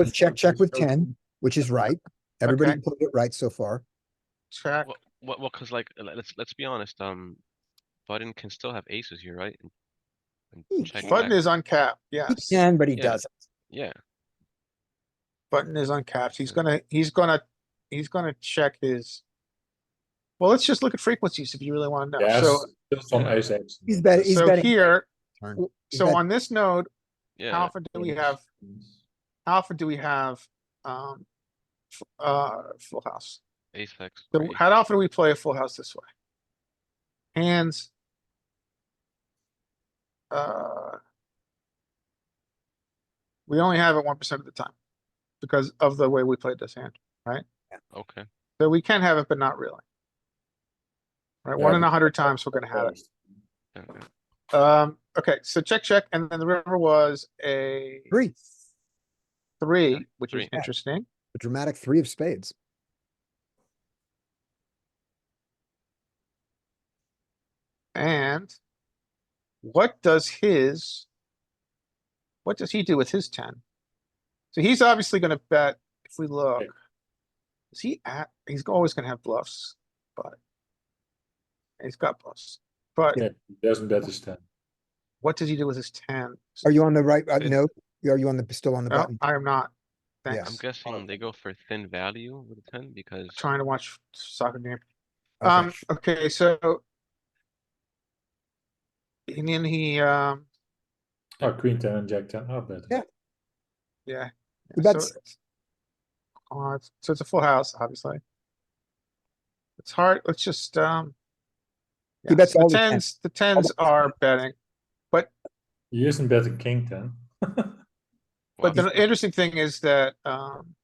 with check, check with ten, which is right. Everybody Okay. put it right so far. Check. Well, well, well, cause like, l- let's, let's be honest, um, button can still have aces here, right? And- and He check can. Button back. is uncapped, yes. He can, but he Yeah. doesn't. Yeah, Button is uncapped. He's gonna, he's gonna, he's gonna check his. Well, let's just look at frequencies if you really wanna know. Yes, So, just on ace X. He's better, he's so betting. here, turn. w- He's so betting- on this node, how yeah, often do we have, how often do we have, um, f- uh, full house? ace X. So or ace- how often do we play a full house this way? Hands. Uh. We only have it one percent of the time. Because of the way we played this hand. Okay, So we can have it, but not really. Right, Yeah, one in but- a hundred times we're gonna have it. yeah, yeah. Um, okay, so check, check, and then the river was a Three, three, which is Three. interesting. a dramatic three of spades. And what does his, what does he do with his ten? So he's obviously gonna bet if we look. Is he at, he's always gonna have bluffs, but he's got bluffs, but Yeah, he doesn't bet his ten. what does he do with his ten? Are you on the right, uh, It's- no, are you on the, still on the No, button? I am not. Yeah. Thanks. I'm guessing they go for thin value with a ten because, Trying to watch soccer game. Okay. Um, okay, so. And then he, um, Oh, queen ten and jack ten are better. Yeah. yeah. But Yeah, so that's- it's- Uh, it's- so it's a full house, obviously. It's hard, let's just, um. He yeah, bets so the all the tens. tens, the tens are betting, He isn't betting king ten. well, but the interesting thing is that, um,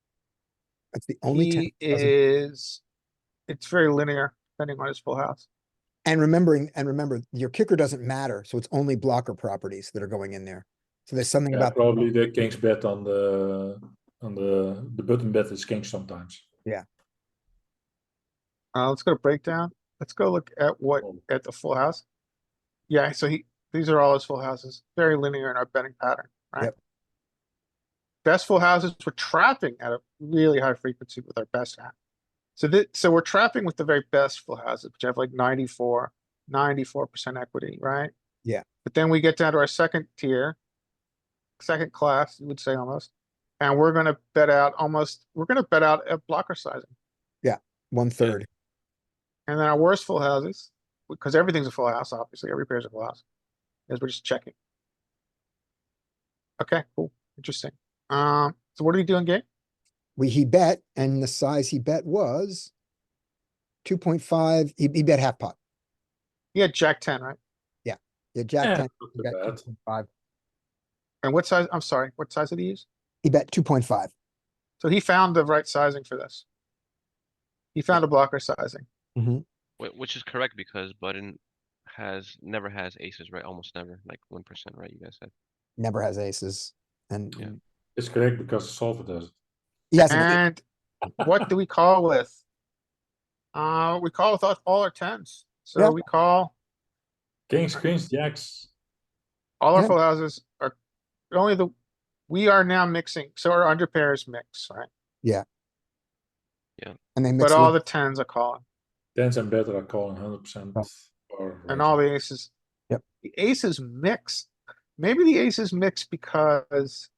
That's the only ten. he he doesn't- is. It's very linear, depending on his full house. And remembering, and remember, your kicker doesn't matter, so it's only blocker properties that are going in there. So there's something Yeah, about, probably the king's bet on the, on the, the button bet is king sometimes. Uh, let's go to breakdown, let's go look at what, Oh. at the full house. Yeah, so he, these are all his full houses, very linear in our betting pattern, right? Yep. Best full houses, we're trapping at a really high frequency with our best hand. So that, so we're trapping with the very best full houses, which have like 94, 94 percent equity, right? Yeah. But then we get down to our second tier. Second class, you would say almost, and we're gonna bet out almost, we're gonna bet out at blocker sizing. one third. And then our worst full houses, because everything's a full house, obviously, every pair's a full house, is we're just checking. Okay, cool, interesting. Um, so what are we doing game? We, he bet, and the size he bet was two point five, he, he bet half pot. He had jack ten, right? Yeah, jack Eh, Yeah, ten, not he too bet bad. 2.5. And what size, I'm sorry, what size did he use? He bet two point five. So he found the right sizing for this. He found a blocker sizing. whi- which is correct because button has, never has aces, right? Almost never, like one percent, right? You guys said. never has aces. And Yeah. It's correct because solver does it. yes, And what do we call with? Uh, we call with all- all our tens. Yeah. So we call Kings, queens, jacks. all our Yeah. full houses are only the, we are now mixing, so our under pairs mix, right? and they mix But all all the tens are calling Tens and better are calling hundred percent. and all the aces. Yep. The aces mix. Maybe the aces mix because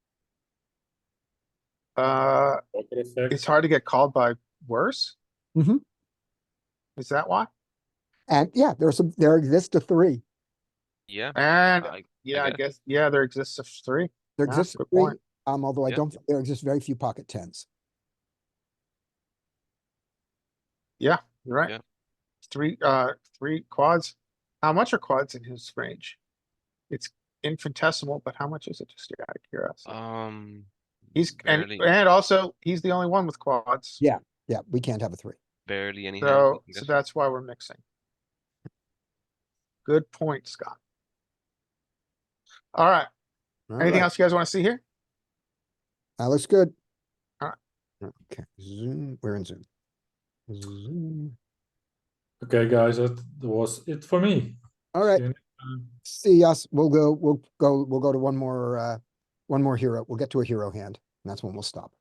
uh, it's hard to get called by worse. Mhm. Is that why? and yeah, there's some there exists a three. Yeah, And I, yeah, I guess. guess, yeah, there exists a three. There Yeah, exists a good three. point. Um, although I Yeah. don't think there exists very few pocket tens. You're right. Yeah. Three, uh, three quads. How much are quads in his range? It's infinitesimal, but how much is it? Just out of curiosity. um. He's, and, barely- and also, he's the only one with quads. Yeah, Yeah, we can't have a three. Barely any. hands, So, I'm so guessing. that's why we're mixing. Good point, Scott. Alright, anything Alright, else you guys wanna see here? That looks good. Alright. Okay, Zoom, we're in Zoom. Zoom. Okay, guys, that was it for me. All right, See you next time. see us. We'll go, we'll go, we'll go to one more, uh, one more hero. We'll get to a hero hand. And that's when we'll stop.